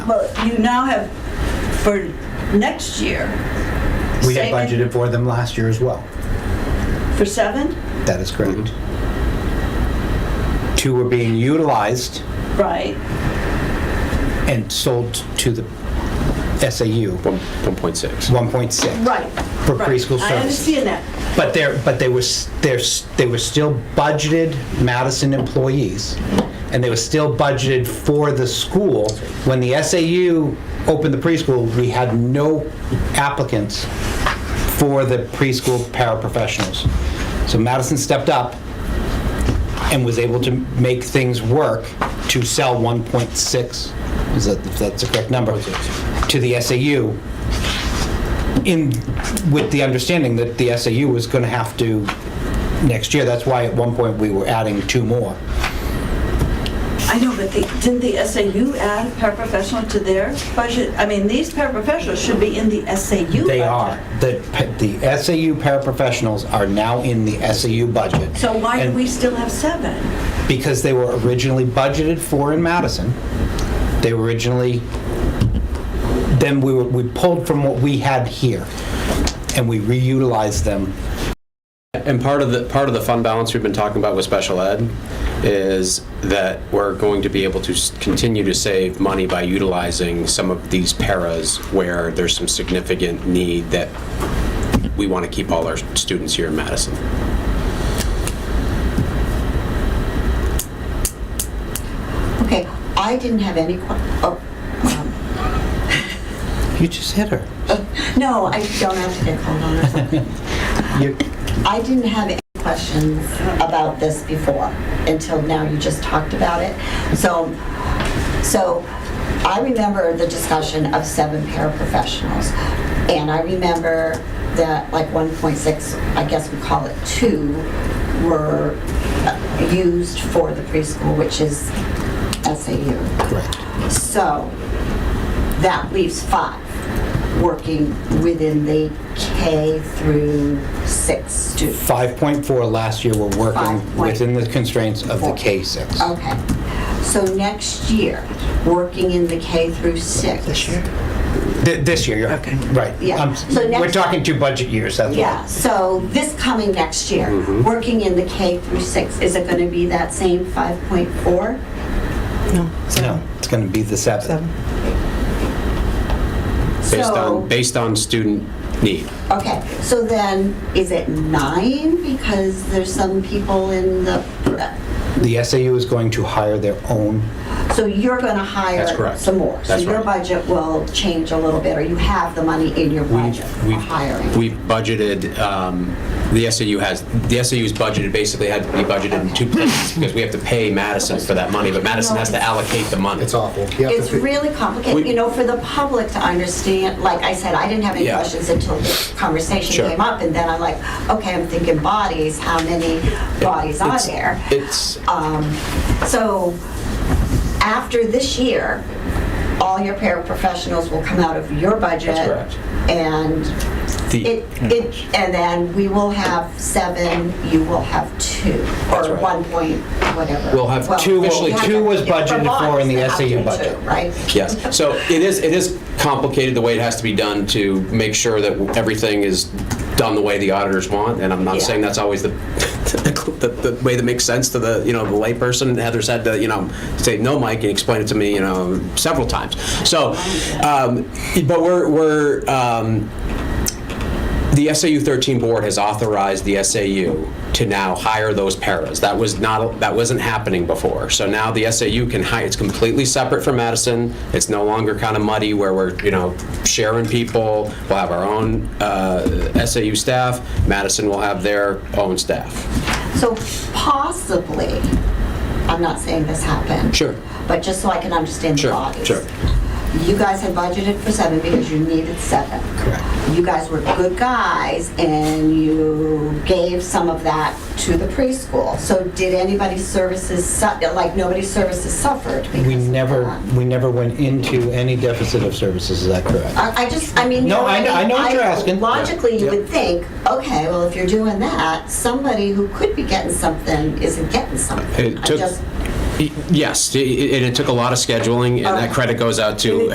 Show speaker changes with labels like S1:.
S1: but you now have for next year.
S2: We had
S1: saving
S2: budgeted for them last year as well.
S1: For seven,
S2: That is correct. Two were being utilized
S1: right,
S2: and sold to the SAU,
S3: One, 1.6.
S2: 1.6.
S1: right.
S2: For
S1: right.
S2: preschool
S1: I
S2: services.
S1: understand that.
S2: But they're, but they were, s- they're, s- they were still budgeted Madison employees, and they were still budgeted for the school. When the SAU opened the preschool, we had no applicants for the preschool paraprofessionals. So Madison stepped up and was able to make things work to sell 1.6, is that, if that's the correct number, to the SAU in, with the understanding that the SAU was going to have to, next year, that's why at one point we were adding two more.
S1: I know, but they, didn't the SAU add paraprofessional to their budget? I mean, these paraprofessionals should be in the SAU budget.
S2: They are. The, pa- the SAU paraprofessionals are now in the SAU budget.
S1: So why do
S2: And
S1: we still have seven?
S2: Because they were originally budgeted for in Madison. They were originally, then we were, we pulled from what we had here, and we reutilized them.
S3: And part of the, part of the fund balance we've been talking about with special ed is that we're going to be able to s- continue to save money by utilizing some of these paras where there's some significant need that we want to keep all our students here in Madison.
S4: Okay, I didn't have any, que- oh, um,
S2: You just hit her.
S4: no, I don't have to get called on or something.
S2: You-
S4: I didn't have any questions about this before, until now you just talked about it. So, so I remember the discussion of seven paraprofessionals, and I remember that like 1.6, I guess we call it two, were uh, used for the preschool, which is SAU.
S2: Correct.
S4: So that leaves five working within the K through six students.
S2: 5.4 last year were working
S4: Five point
S2: within the constraints of the
S4: four.
S2: K6.
S4: Okay. So next year, working in the K through six. This year?
S2: Th- This year, you're, right.
S4: Yeah.
S2: I'm-
S4: So next-
S2: We're talking two budget years, that's
S4: Yeah,
S2: what.
S4: so this coming next year,
S3: Mm-hmm.
S4: working in the K through six, is it going to be that same 5.4?
S2: No, it's going to be the seven.
S3: Based
S4: So-
S3: on, based on student need.
S4: Okay, so then is it nine? Because there's some people in the,
S2: The SAU is going to hire their own,
S4: So you're going to
S3: That's
S4: hire
S3: correct.
S4: some more?
S3: That's
S4: So your
S3: right.
S4: budget will change a little bit, or you have the money in your budget for
S3: We've,
S4: hiring?
S3: we've budgeted, um, the SAU has, the SAU's budgeted basically had to be budgeted in two places because we have to pay Madison for that money, but Madison has to allocate the money.
S5: It's awful. You have to
S4: It's
S5: fi-
S4: really complicated,
S3: We-
S4: you know, for the public to understand, like I said, I didn't have any
S3: Yeah.
S4: questions until this conversation
S3: Sure.
S4: came up, and then I'm like, okay, I'm thinking bodies, how many bodies are
S3: It's-
S4: there? Um,
S3: It's,
S4: So after this year, all your paraprofessionals will come out of your budget.
S3: That's correct.
S4: And
S3: The- Hmm.
S4: it, it, and then we will have seven, you will have two,
S3: That's
S4: or
S3: right.
S4: one point, whatever.
S3: We'll have
S4: Well,
S3: two-
S4: we
S3: officially
S4: have
S2: two
S4: to-
S2: was
S4: for
S2: budgeted for
S4: bonds,
S2: in the
S4: they have to
S2: SAU
S4: do two,
S2: budget.
S4: Right?
S3: Yes, so it is, it is complicated the way it has to be done to make sure that everything is done the way the auditors want, and I'm not
S4: Yeah.
S3: saying that's always the, the, the way that makes sense to the, you know, the layperson. Heather's had to, you know, say, no, Mike, and explain it to me, you know, several times. So, um, but we're, we're, um, the SAU 13 board has authorized the SAU to now hire those paras. That was not, that wasn't happening before. So now the SAU can hire, it's completely separate from Madison. It's no longer kind of muddy where we're, you know, sharing people. We'll have our own uh, SAU staff. Madison will have their own staff.
S4: So possibly, I'm not saying this happened.
S3: Sure.
S4: But just so I can understand the
S3: Sure,
S4: bodies.
S3: sure.
S4: You guys had budgeted for seven because you needed seven.
S2: Correct.
S4: You guys were good guys and you gave some of that to the preschool. So did anybody's services, su- like nobody's services suffered because
S2: We
S4: of
S2: never,
S4: that?
S2: we never went into any deficit of services, is that correct?
S4: I I just, I mean. you
S2: No, I
S4: what
S2: know- I know what you're asking.
S4: Logically, you
S2: Yeah.
S4: would think, okay, well, if you're doing that, somebody who could be getting something isn't getting something.
S3: It
S4: I
S3: took-
S4: just-
S3: Y- Yes, i- i- and it took a lot of scheduling, and that
S4: Okay.
S3: credit goes out to